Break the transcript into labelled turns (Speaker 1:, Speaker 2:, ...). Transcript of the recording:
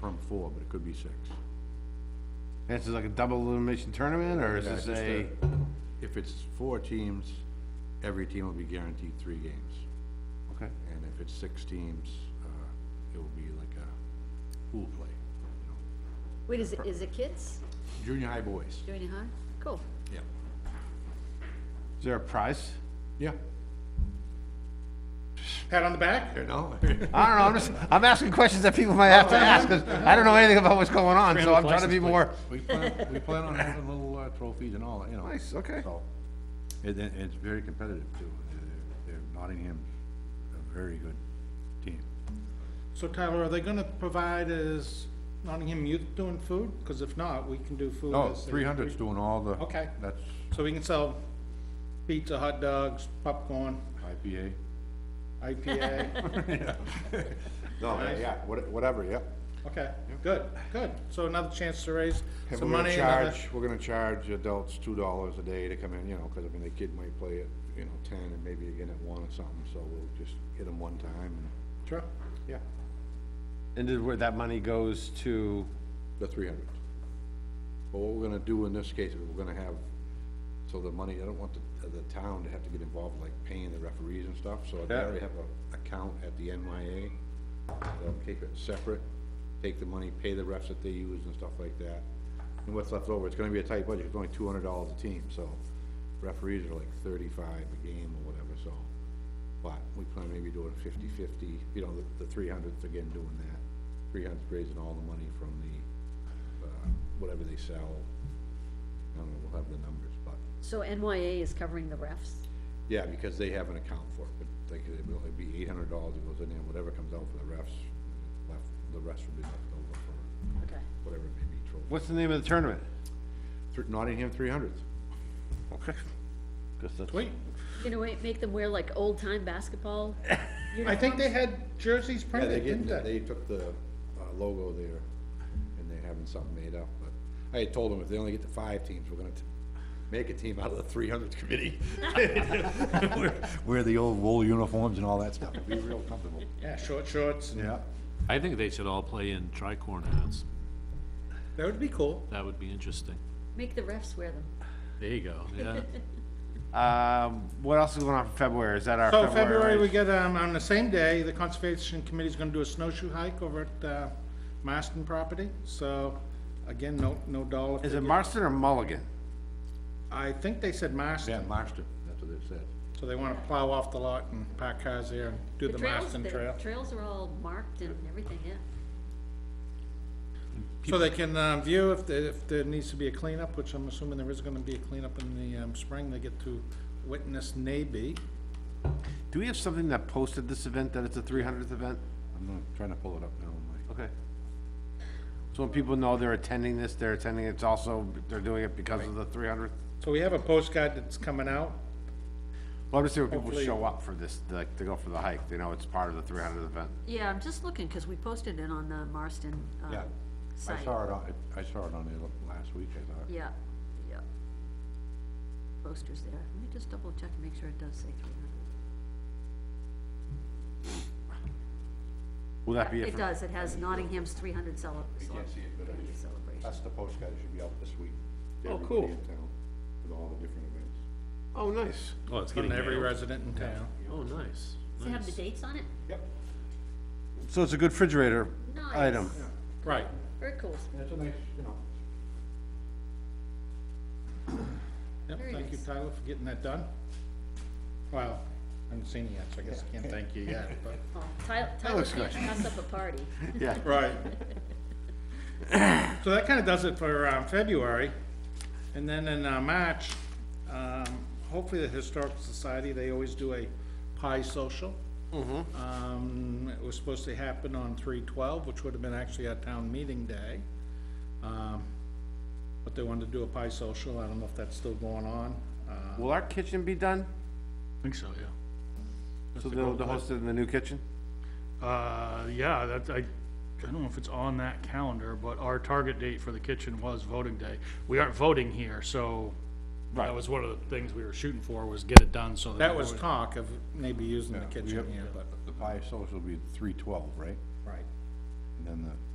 Speaker 1: from four, but it could be six.
Speaker 2: And this is like a double elimination tournament, or is
Speaker 1: Yeah, it's
Speaker 2: this
Speaker 1: just
Speaker 2: a,
Speaker 1: If it's four teams, every team will be guaranteed three games.
Speaker 2: okay,
Speaker 1: And if it's six teams, uh, it will be like a pool play, you know.
Speaker 3: Wait, is it, is it kids
Speaker 1: Junior high boys.
Speaker 3: doing it, huh? Cool.
Speaker 1: Yeah.
Speaker 2: is there a prize?
Speaker 1: Yeah.
Speaker 4: Pat on the back?
Speaker 1: You know?
Speaker 2: I don't know, I'm just, I'm asking questions that people might have to ask, 'cause I don't know anything about what's going on, so I'm trying to be more,
Speaker 1: We plan, we plan on having little uh, trophies and all, that, you know.
Speaker 2: nice, okay.
Speaker 1: So, and, and it's very competitive too. They're- They're Nottingham, a very good team.
Speaker 4: So Tyler, are they gonna provide is Nottingham Youth doing food? Cause if not, we can do food.
Speaker 1: Oh,
Speaker 4: as a-
Speaker 1: 300's doing all the.
Speaker 4: Okay.
Speaker 1: That's
Speaker 4: So we can sell pizza, hot dogs, popcorn,
Speaker 1: IPA.
Speaker 4: IPA.
Speaker 1: No, yeah, what- whatever, yep.
Speaker 4: Okay, good, good. So another chance to raise
Speaker 1: And
Speaker 4: some
Speaker 1: we're gonna
Speaker 4: money. another-
Speaker 1: charge, we're gonna charge adults two dollars a day to come in, you know, cause I mean, the kid might play at, you know, ten and maybe again at one or something, so we'll just hit them one time and,
Speaker 4: Sure.
Speaker 1: yeah,
Speaker 2: And then where that money goes to,
Speaker 1: the three hundred. But what we're gonna do in this case is we're gonna have, so the money, I don't want the, the town to have to get involved like paying the referees and stuff, so they
Speaker 2: Yeah.
Speaker 1: already have a account at the NYA. They'll um, keep it separate, take the money, pay the refs that they use and stuff like that. And what's left over, it's gonna be a tight budget, it's only two hundred dollars a team, so referees are like thirty-five a game or whatever, so. But we plan maybe doing fifty-fifty, you know, the, the three hundredth again doing that. Three hundredth raising all the money from the, uh, whatever they sell. I don't know, we'll have the numbers, but,
Speaker 3: So NYA is covering the refs?
Speaker 1: yeah, because they have an account for it, but like, it will, it'd be eight hundred dollars, it goes in there, whatever comes out for the refs, left, the rest will be left over for
Speaker 3: Okay.
Speaker 1: whatever it may be, trophy.
Speaker 2: what's the name of the tournament?
Speaker 1: Thr- Nottingham three hundredth.
Speaker 2: Okay. Guess that's-
Speaker 4: Wait,
Speaker 3: You know, wait, make them wear like old-time basketball?
Speaker 4: I think they had jerseys
Speaker 1: Yeah, they
Speaker 4: printed,
Speaker 1: get,
Speaker 4: didn't they?
Speaker 1: they took the uh, logo there, and they're having something made up, but I had told them if they only get to five teams, we're gonna t- make a team out of the three hundredth committee. Wear- Wear the old wool uniforms and all that stuff, it'd be real comfortable.
Speaker 4: Yeah, short shorts.
Speaker 1: Yeah.
Speaker 5: I think they should all play in tricorn hats.
Speaker 4: That would be cool.
Speaker 5: That would be interesting.
Speaker 3: Make the refs wear them.
Speaker 5: There you go, yeah.
Speaker 2: Um, what else is going on for February? Is that our
Speaker 4: So
Speaker 2: February?
Speaker 4: February, we
Speaker 2: race?
Speaker 4: get, um, on the same day, the Conservation Committee's gonna do a snowshoe hike over at, uh, Marston property, so, again, no, no dollar.
Speaker 2: Is it
Speaker 4: figure.
Speaker 2: Marston or Mulligan?
Speaker 4: I think they said
Speaker 1: Yeah,
Speaker 4: Marston,
Speaker 1: Marston, that's what they said.
Speaker 4: so they wanna plow off the lot and park cars there and do the
Speaker 3: trails-
Speaker 4: Marston
Speaker 3: the
Speaker 4: trail.
Speaker 3: Trails are all marked and everything, yeah.
Speaker 4: So they can, um, view if, there- if there needs to be a cleanup, which I'm assuming there is gonna be a cleanup in the, um, spring, they get to witness maybe.
Speaker 2: Do we have something that posted this event, that it's a three hundredth event?
Speaker 1: I'm not trying to pull it up now, I'm like,
Speaker 2: Okay. So when people know they're attending this, they're attending, it's also, they're doing it because of the three hundredth?
Speaker 4: So we have a postcard that's coming out,
Speaker 2: Well, I'm just saying, when people
Speaker 4: Hopefully-
Speaker 2: show up for this, like, to go for the hike, they know it's part of the three hundredth event.
Speaker 3: Yeah, I'm just looking, because we posted it on the Marston, um,
Speaker 1: yeah,
Speaker 3: site.
Speaker 1: I saw it on, I I saw it on the last week, I thought.
Speaker 3: Yeah, yeah. Posters there. Let me just double check and make sure it does say three hundred.
Speaker 2: Will that be it
Speaker 3: It
Speaker 2: for,
Speaker 3: does, it has Nottingham's three hundred cele-
Speaker 1: You can't see it, but I-
Speaker 3: celebration.
Speaker 1: that's the postcard, it should be out this week. to
Speaker 2: Oh,
Speaker 1: everybody
Speaker 2: cool.
Speaker 1: in town, With all the different events.
Speaker 2: oh, nice.
Speaker 5: Oh, it's
Speaker 4: on
Speaker 5: getting
Speaker 4: every
Speaker 5: mailed.
Speaker 4: resident in town.
Speaker 5: Oh, nice,
Speaker 3: Does it have the
Speaker 5: nice.
Speaker 3: dates on it?
Speaker 1: Yep.
Speaker 2: So it's a good refrigerator
Speaker 3: Nice.
Speaker 2: item.
Speaker 4: Right.
Speaker 3: Very cool.
Speaker 1: That's a nice, you know.
Speaker 4: Yep,
Speaker 3: Very
Speaker 4: thank you,
Speaker 3: nice.
Speaker 4: Tyler, for getting that done. Well, I haven't seen it yet, so I guess I can't thank you yet, but.
Speaker 3: Oh, Tyler, Tyler
Speaker 2: looks
Speaker 3: can't
Speaker 2: good.
Speaker 3: pass up a party.
Speaker 2: Yeah,
Speaker 4: Right. So that kinda does it for, um, February, and then in, uh, March, um, hopefully the Historical Society, they always do a pie social. Mm-hmm. Um, it was supposed to happen on three twelve, which would have been actually our town meeting day. Um, but they wanted to do a pie social, I don't know if that's still going on, uh,
Speaker 2: will our kitchen be done?
Speaker 6: I think so, yeah.
Speaker 2: So they'll they'll host it in the new kitchen?
Speaker 6: Uh, yeah, that, I, I don't know if it's on that calendar, but our target date for the kitchen was voting day. We aren't voting here, so that was one of the things we were shooting for, was get it done so that.
Speaker 4: That
Speaker 6: we
Speaker 4: was
Speaker 6: would-
Speaker 4: talk of maybe using the kitchen, yeah, but,
Speaker 1: The pie social will be three twelve, right?
Speaker 4: right.
Speaker 1: And then the